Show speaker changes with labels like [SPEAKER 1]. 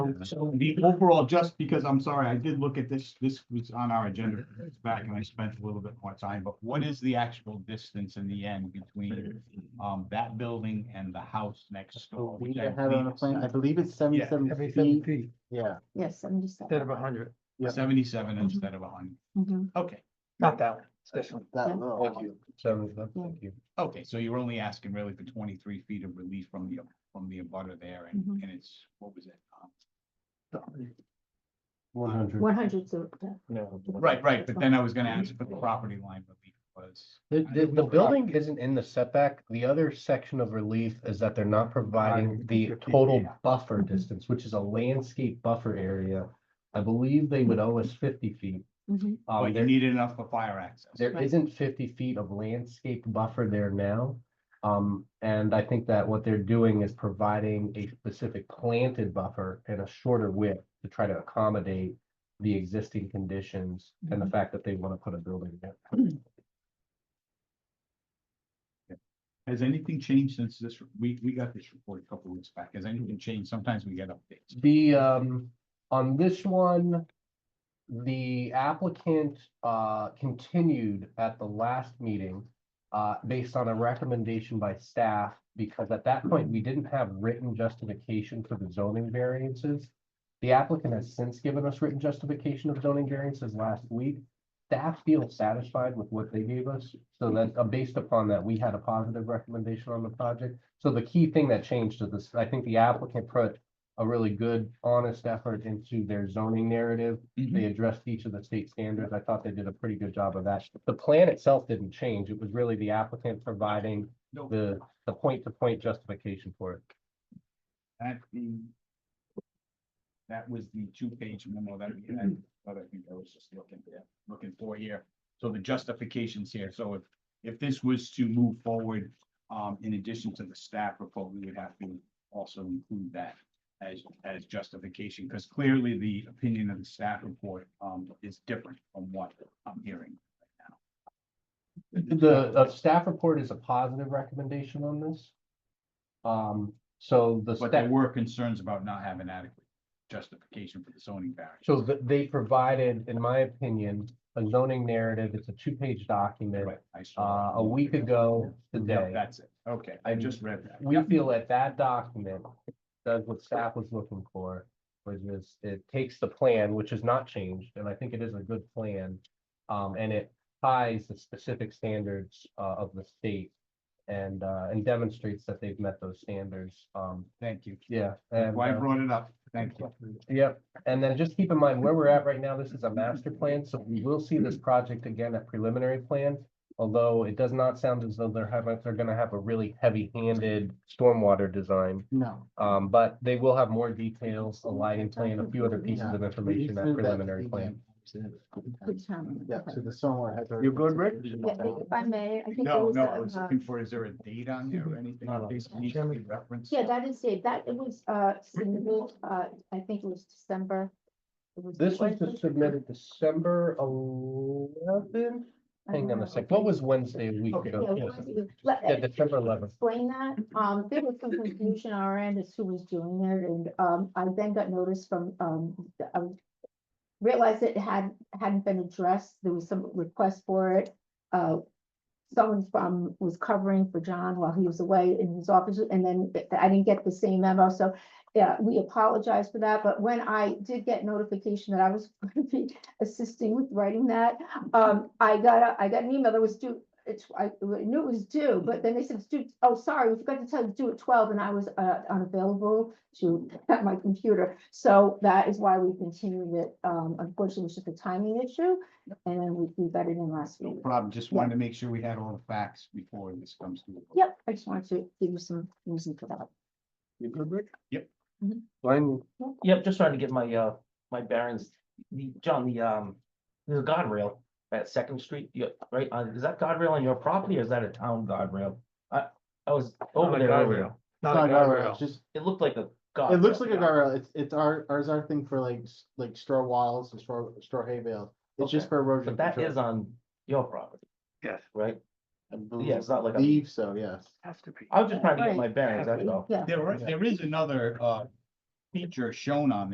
[SPEAKER 1] Um, so the overall, just because I'm sorry, I did look at this, this was on our agenda a few years back and I spent a little bit more time, but what is the actual distance in the end between um, that building and the house next
[SPEAKER 2] Oh,
[SPEAKER 1] door?
[SPEAKER 3] So we
[SPEAKER 1] which I
[SPEAKER 3] had on a
[SPEAKER 1] believe is
[SPEAKER 3] plan, I believe it's seventy-seven
[SPEAKER 2] Every seven
[SPEAKER 3] feet,
[SPEAKER 2] feet
[SPEAKER 3] yeah.
[SPEAKER 2] instead
[SPEAKER 4] Yes, seventy-seven.
[SPEAKER 2] of a hundred,
[SPEAKER 3] yeah. Mm-hmm.
[SPEAKER 1] Seventy-seven
[SPEAKER 4] Mhm.
[SPEAKER 1] instead of hundred.
[SPEAKER 4] Mhm.
[SPEAKER 1] Okay,
[SPEAKER 2] not that one, it's this one.
[SPEAKER 3] That
[SPEAKER 4] Yeah.
[SPEAKER 3] little
[SPEAKER 2] Thank
[SPEAKER 3] one.
[SPEAKER 4] Yeah.
[SPEAKER 2] Seventy-seven, you.
[SPEAKER 1] okay, so you're only asking really for twenty-three feet of relief from the, from the abutter there and,
[SPEAKER 4] Mhm.
[SPEAKER 1] and it's, what was it? Um,
[SPEAKER 2] One
[SPEAKER 5] Hmm.
[SPEAKER 2] hundred.
[SPEAKER 4] One hundred, so, yeah.
[SPEAKER 5] No.
[SPEAKER 1] Right, right, but then I was gonna ask for the property line relief was.
[SPEAKER 5] The, the, the building isn't in the setback. The other section of relief is that they're not providing the
[SPEAKER 2] Fifteen,
[SPEAKER 5] total
[SPEAKER 1] yeah.
[SPEAKER 5] buffer distance, which is a landscape buffer area. I believe they would owe us fifty feet.
[SPEAKER 4] Mhm.
[SPEAKER 5] Um,
[SPEAKER 3] Oh,
[SPEAKER 1] But you
[SPEAKER 5] there,
[SPEAKER 1] need enough for fire access.
[SPEAKER 5] there
[SPEAKER 4] Right.
[SPEAKER 5] isn't fifty feet of landscape buffer there now. Um, and I think that what they're doing is providing a specific planted buffer and a shorter width to try to accommodate the existing conditions and the fact that they want to put a building there.
[SPEAKER 1] Has anything changed since this, we, we got this report a couple weeks back, has anything changed? Sometimes we get updates.
[SPEAKER 5] The, um, on this one, the applicant, uh, continued at the last meeting, uh, based on a recommendation by staff, because at that point, we didn't have written justification for the zoning variances. The applicant has since given us written justification of zoning variances last week. Staff feels satisfied with what they gave us, so that, uh, based upon that, we had a positive recommendation on the project. So the key thing that changed is this, I think the applicant put a really good, honest effort into their zoning narrative. They
[SPEAKER 1] Mm-hmm.
[SPEAKER 5] addressed each of the state standards. I thought they did a pretty good job of that. The plan itself didn't change. It was really the applicant providing
[SPEAKER 1] No.
[SPEAKER 5] the, the point-to-point justification for it.
[SPEAKER 1] That the. That was the two-page memo that we had, but I think I was just looking there, looking for here. So the justifications here, so if, if this was to move forward, um, in addition to the staff report, we would have to also include that as, as justification, because clearly the opinion of the staff report, um, is different from what I'm hearing.
[SPEAKER 5] The, the staff report is a positive recommendation on this. Um, so the.
[SPEAKER 1] But
[SPEAKER 5] staff-
[SPEAKER 1] there were concerns about not having adequate justification for the zoning variance.
[SPEAKER 5] So th- they provided, in my opinion, a zoning narrative. It's a two-page document,
[SPEAKER 1] Right, I saw
[SPEAKER 5] uh,
[SPEAKER 1] that.
[SPEAKER 5] a week ago
[SPEAKER 1] Yeah,
[SPEAKER 5] today.
[SPEAKER 1] that's it. Okay, I just read that.
[SPEAKER 5] We feel that that document does what staff was looking for, which is it takes the plan, which is not changed, and I think it is a good plan. Um, and it ties the specific standards, uh, of the state and, uh, and demonstrates that they've met those standards. Um,
[SPEAKER 1] Thank you.
[SPEAKER 5] yeah.
[SPEAKER 1] That's
[SPEAKER 5] and,
[SPEAKER 1] Why I
[SPEAKER 5] uh,
[SPEAKER 1] brought it up. Thank you.
[SPEAKER 5] Yep, and then just keep in mind where we're at right now, this is a master plan, so we will see this project again at preliminary plan. Although it does not sound as though they're having, they're gonna have a really heavy-handed stormwater design.
[SPEAKER 3] No.
[SPEAKER 5] Um, but they will have more details, a lighting plan, a few other pieces of information at preliminary plan.
[SPEAKER 4] Good time.
[SPEAKER 3] Yeah,
[SPEAKER 4] Okay.
[SPEAKER 3] so the solar has.
[SPEAKER 5] You good, Rick?
[SPEAKER 4] Yeah, if I may, I think there
[SPEAKER 1] No,
[SPEAKER 4] was
[SPEAKER 1] no, I
[SPEAKER 4] a,
[SPEAKER 1] was
[SPEAKER 4] uh, Mm-hmm.
[SPEAKER 1] looking for, is there a date on there or anything?
[SPEAKER 2] No, no.
[SPEAKER 1] Basically, needs to be referenced?
[SPEAKER 4] yeah, that is it, that, it was, uh, submitted, uh, I think it was December. It was
[SPEAKER 5] This was
[SPEAKER 4] Wednesday?
[SPEAKER 5] just submitted December eleventh,
[SPEAKER 4] I
[SPEAKER 5] hang on
[SPEAKER 4] don't
[SPEAKER 5] a
[SPEAKER 4] know.
[SPEAKER 5] sec, what was Wednesday a week
[SPEAKER 1] Okay.
[SPEAKER 4] Yeah,
[SPEAKER 5] ago?
[SPEAKER 4] it was- let- uh,
[SPEAKER 5] Yeah, December eleventh.
[SPEAKER 4] explain that. Um, there was some confusion on our end as who was doing it and, um, I then got notice from, um, the- um, realized it had, hadn't been addressed. There was some request for it. Uh, someone from, was covering for John while he was away in his office and then th- I didn't get the same memo. So, yeah, we apologize for that. But when I did get notification that I was going to be assisting with writing that, um, I got, a I got an email that was due, it's, I knew it was due, but then they said, it's due, oh, sorry, we forgot to tell you, it's due at twelve, and I was, uh, unavailable to at my computer. So that is why we continued it, um, unfortunately, it's just a timing issue, and then we, we got it in last
[SPEAKER 1] No
[SPEAKER 4] week.
[SPEAKER 1] problem. Just wanted to make sure we had all the facts before this comes to. a vote.
[SPEAKER 4] Yep, I just wanted to give you some reason for that.
[SPEAKER 2] You good, Rick?
[SPEAKER 1] Yep.
[SPEAKER 4] Mhm.
[SPEAKER 2] Fine.
[SPEAKER 6] Yep, just trying to get my, uh, my bearings, the, John, the, um, there's a guardrail at Second Street, yeah, right, uh, is that guardrail on your property or is that a town guardrail? I, I was over
[SPEAKER 2] a
[SPEAKER 6] there, earlier.
[SPEAKER 2] guardrail. Not a guardrail.
[SPEAKER 3] Just,
[SPEAKER 6] it looked like a.
[SPEAKER 3] it looks like a
[SPEAKER 6] yeah.
[SPEAKER 3] guardrail, it's, it's our, ours our thing for like, s- like straw walls and straw, straw hay bales. It's just
[SPEAKER 6] Okay.
[SPEAKER 3] for erosion
[SPEAKER 6] But that
[SPEAKER 3] control.
[SPEAKER 6] is on your property,
[SPEAKER 2] Yes,
[SPEAKER 6] right?
[SPEAKER 3] I
[SPEAKER 6] Yeah, it's not like, a-
[SPEAKER 3] Believe so, yes.
[SPEAKER 2] has to be.
[SPEAKER 6] I was just trying to get
[SPEAKER 4] Right.
[SPEAKER 6] my bearings, that's all.
[SPEAKER 4] Yeah.
[SPEAKER 1] There, are- there is another, uh, feature shown on